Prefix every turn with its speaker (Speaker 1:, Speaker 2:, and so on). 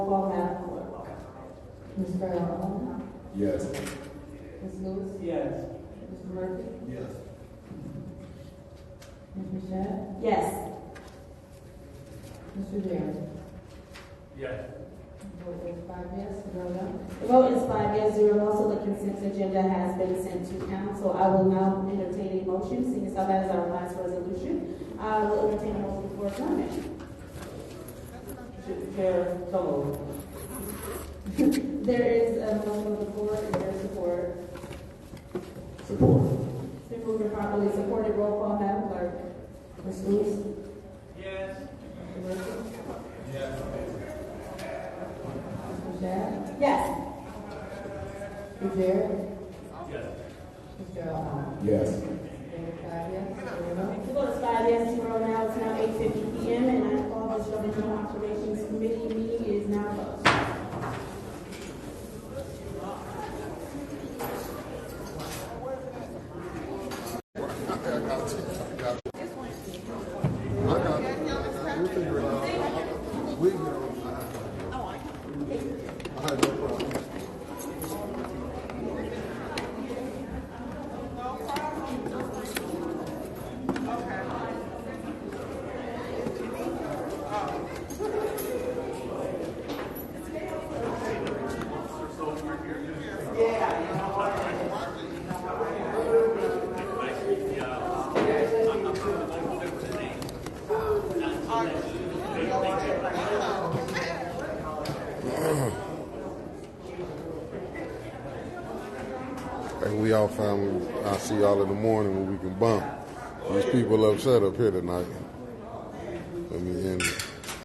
Speaker 1: call now. Ms. Brown.
Speaker 2: Yes.
Speaker 1: Ms. Lewis.
Speaker 3: Yes.
Speaker 1: Mr. Murphy.
Speaker 2: Yes.
Speaker 1: Ms. Michelle.
Speaker 4: Yes.
Speaker 1: Mr. Darren.
Speaker 3: Yes.
Speaker 1: Vote is five yes, zero no.
Speaker 4: The vote is five yes, zero no, so the consent agenda has been sent to council. I will now entertain a motion, seeing as how that is our last resolution. I will entertain a motion for adjournment.
Speaker 3: Chair, so moved.
Speaker 4: There is a motion on the floor, is there support?
Speaker 2: Support.
Speaker 4: It's been moved and properly supported, roll call, Madam Clerk.
Speaker 1: Ms. Lewis.
Speaker 3: Yes.
Speaker 1: Mr. Murphy. Ms. Michelle.
Speaker 4: Yes.
Speaker 1: Mr. Darren.
Speaker 3: Yes.
Speaker 1: Mr. Allen.
Speaker 2: Yes.
Speaker 1: Vote is five yes, zero no.
Speaker 4: The vote is five yes, zero no, it's now eight fifty P M, and I call the Governmental Operations Committee meeting is now closed.
Speaker 5: And we all find I'll see y'all in the morning when we can bump. These people upset up here tonight.